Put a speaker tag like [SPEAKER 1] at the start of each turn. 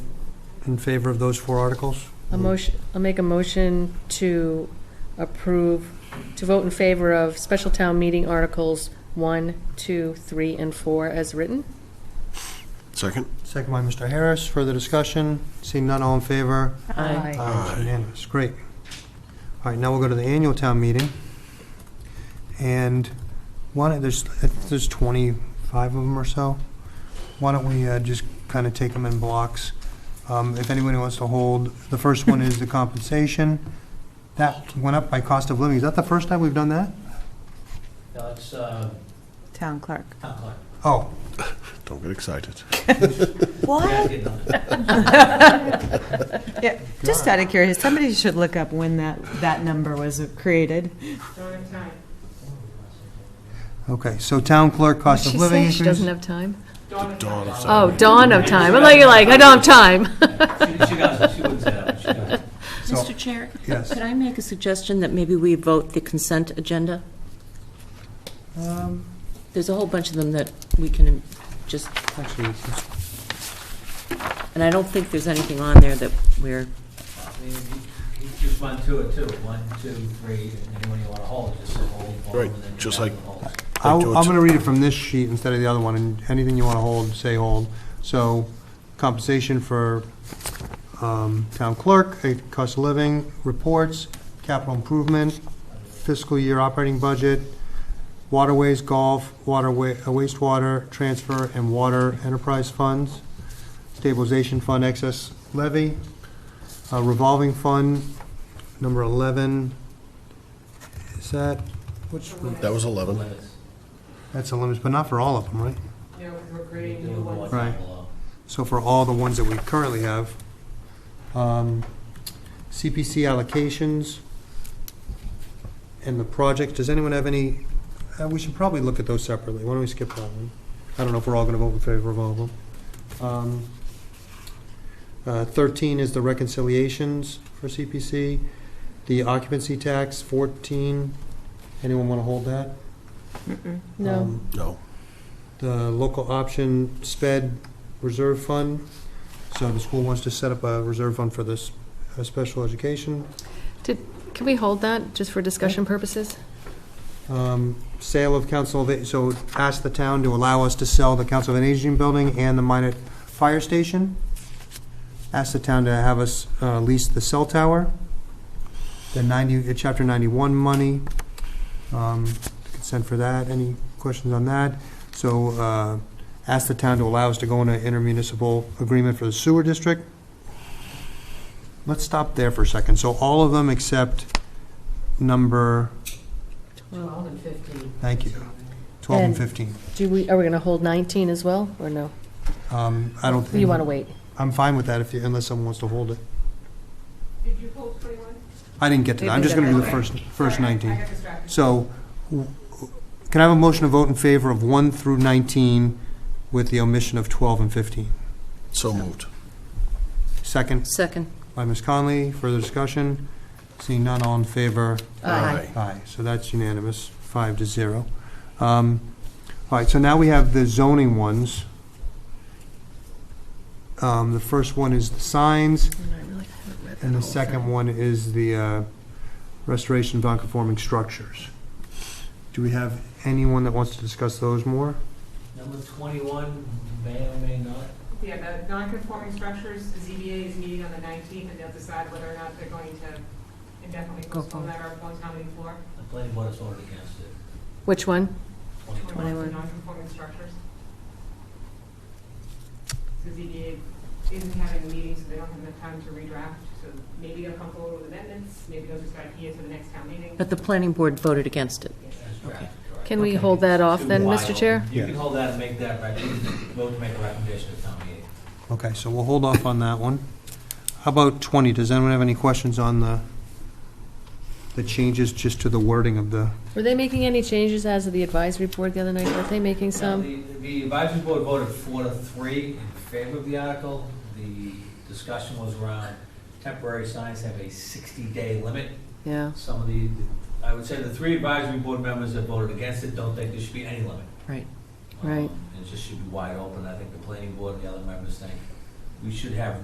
[SPEAKER 1] in favor of those four articles?
[SPEAKER 2] A motion, I'll make a motion to approve, to vote in favor of special town meeting articles one, two, three, and four as written.
[SPEAKER 3] Second?
[SPEAKER 1] Second by Mr. Harris. Further discussion? Seeing none, all in favor?
[SPEAKER 2] Aye.
[SPEAKER 1] Aye, it's unanimous. Great. All right, now we'll go to the annual town meeting. And why don't, there's, I think there's 25 of them or so. Why don't we uh, just kind of take them in blocks? Um, If anybody wants to hold, the first one is the compensation. That went up by cost of living. Is that the first time we've done that?
[SPEAKER 4] No, it's, uh,
[SPEAKER 5] Town clerk.
[SPEAKER 4] not quite.
[SPEAKER 1] Oh,
[SPEAKER 3] Don't get excited.
[SPEAKER 4] Yeah, I
[SPEAKER 5] What?
[SPEAKER 4] did not.
[SPEAKER 5] Yeah, just out of curiosity, somebody should look up when that, that number was created.
[SPEAKER 1] okay. So town clerk, cost of living
[SPEAKER 2] She doesn't
[SPEAKER 1] increase.
[SPEAKER 2] have time?
[SPEAKER 3] Dawn of
[SPEAKER 2] Oh,
[SPEAKER 3] summer.
[SPEAKER 2] dawn of time. I'm like, you're like, I don't have time.
[SPEAKER 4] She- She does, she wouldn't say that, she does.
[SPEAKER 1] So-
[SPEAKER 6] Mr. Chair,
[SPEAKER 1] Yes.
[SPEAKER 6] could I make a suggestion that maybe we vote the consent agenda?
[SPEAKER 1] Um,
[SPEAKER 6] There's a whole bunch of them that we can just,
[SPEAKER 1] Actually, it's-
[SPEAKER 6] and I don't think there's anything on there that we're,
[SPEAKER 4] I mean, you- you Just one, two, or two, one, two, three, and anyone you want to hold, just say hold. hold,
[SPEAKER 3] Right,
[SPEAKER 4] and then
[SPEAKER 3] just
[SPEAKER 4] you
[SPEAKER 3] like-
[SPEAKER 4] have them hold.
[SPEAKER 1] I'll- I'm going to read it from this sheet instead of the other one, and anything you want to hold, say hold. So compensation for um, town clerk, eh, cost of living, reports, capital improvement, fiscal year operating budget, waterways, golf, water wa- uh, wastewater transfer, and water enterprise funds, stabilization fund excess levy, uh, revolving fund, number 11. Is that, which?
[SPEAKER 3] That was 11.
[SPEAKER 4] Limits.
[SPEAKER 1] That's the limits, but not for all of them, right?
[SPEAKER 4] Do the ones
[SPEAKER 1] Right.
[SPEAKER 4] below.
[SPEAKER 1] So for all the ones that we currently have, um, CPC allocations and the projects, does anyone have any, uh, we should probably look at those separately. Why don't we skip that one? I don't know if we're all going to vote in favor of all of them. Um, uh, 13 is the reconciliations for CPC, the occupancy tax, 14. Anyone want to hold that?
[SPEAKER 2] No.
[SPEAKER 1] Um,
[SPEAKER 3] No.
[SPEAKER 1] the local option sped reserve fund. So the school wants to set up a reserve fund for this uh, special education.
[SPEAKER 2] Can we hold that just for discussion purposes?
[SPEAKER 1] Um, Sale of council, of- so ask the town to allow us to sell the council of an aging building and the minor fire station. Ask the town to have us uh, lease the cell tower. The 90, uh, chapter 91 money, um, consent for that. Any questions on that? So uh, ask the town to allow us to go into intermunicipal agreement for the sewer district. Let's stop there for a second. So all of them except number
[SPEAKER 2] Well,
[SPEAKER 1] Thank you. 12 and
[SPEAKER 2] And-
[SPEAKER 1] 15.
[SPEAKER 2] Do we, are we going to hold 19 as well, or no?
[SPEAKER 1] Um, I don't.
[SPEAKER 2] You want to wait?
[SPEAKER 1] I'm fine with that if you, unless someone wants to hold it. Did you hold 21? I didn't get to that. I'm just going to do the first, first 19. So w- can I have a motion to vote in favor of 1 through 19 with the omission of 12 and 15?
[SPEAKER 3] So moved.
[SPEAKER 1] Second
[SPEAKER 6] second.
[SPEAKER 1] by Ms. Conley. Further discussion? Seeing none, all in favor? Aye, so that's unanimous, five to zero. Um, All right, so now we have the zoning ones. Um, The first one is the signs, and the second one is the uh, restoration of non-conforming structures. Do we have anyone that wants to discuss those more?
[SPEAKER 4] Number twenty-one, may or may not,
[SPEAKER 7] Yeah, the non-conforming structures, ZBA is meeting on the 19th, and they'll decide whether or not they're going to indefinitely
[SPEAKER 6] Go
[SPEAKER 7] postpone that or go to town meeting floor.
[SPEAKER 4] the planning board has voted against it,
[SPEAKER 2] Which one?
[SPEAKER 4] twenty-one.
[SPEAKER 7] The Non-conforming structures. So ZBA isn't having a meeting, so they don't have enough time to redraft, so maybe they'll come forward with amendments, maybe they'll just decide here to the next town meeting.
[SPEAKER 6] But the planning board voted against it.
[SPEAKER 4] That's correct, correct.
[SPEAKER 2] Can we hold that off
[SPEAKER 4] Too
[SPEAKER 2] then,
[SPEAKER 4] wide
[SPEAKER 2] Mr.
[SPEAKER 4] open.
[SPEAKER 2] Chair?
[SPEAKER 4] You can hold that and make that, rec- vote to make a recommendation at town meeting.
[SPEAKER 1] Okay, so we'll hold off on that one. How about 20? Does anyone have any questions on the, the changes just to the wording of the?
[SPEAKER 2] Were they making any changes as of the advisory board the other night? Were they making some?
[SPEAKER 4] The- The advisory board voted four to three in favor of the article. The discussion was around temporary signs have a 60-day limit.
[SPEAKER 2] Yeah,
[SPEAKER 4] Some of the, I would say the three advisory board members that voted against it don't think there should be any limit.
[SPEAKER 6] Right.
[SPEAKER 4] Um,
[SPEAKER 2] Right.
[SPEAKER 4] It just should be wide open. I think the planning board and the other members think we should have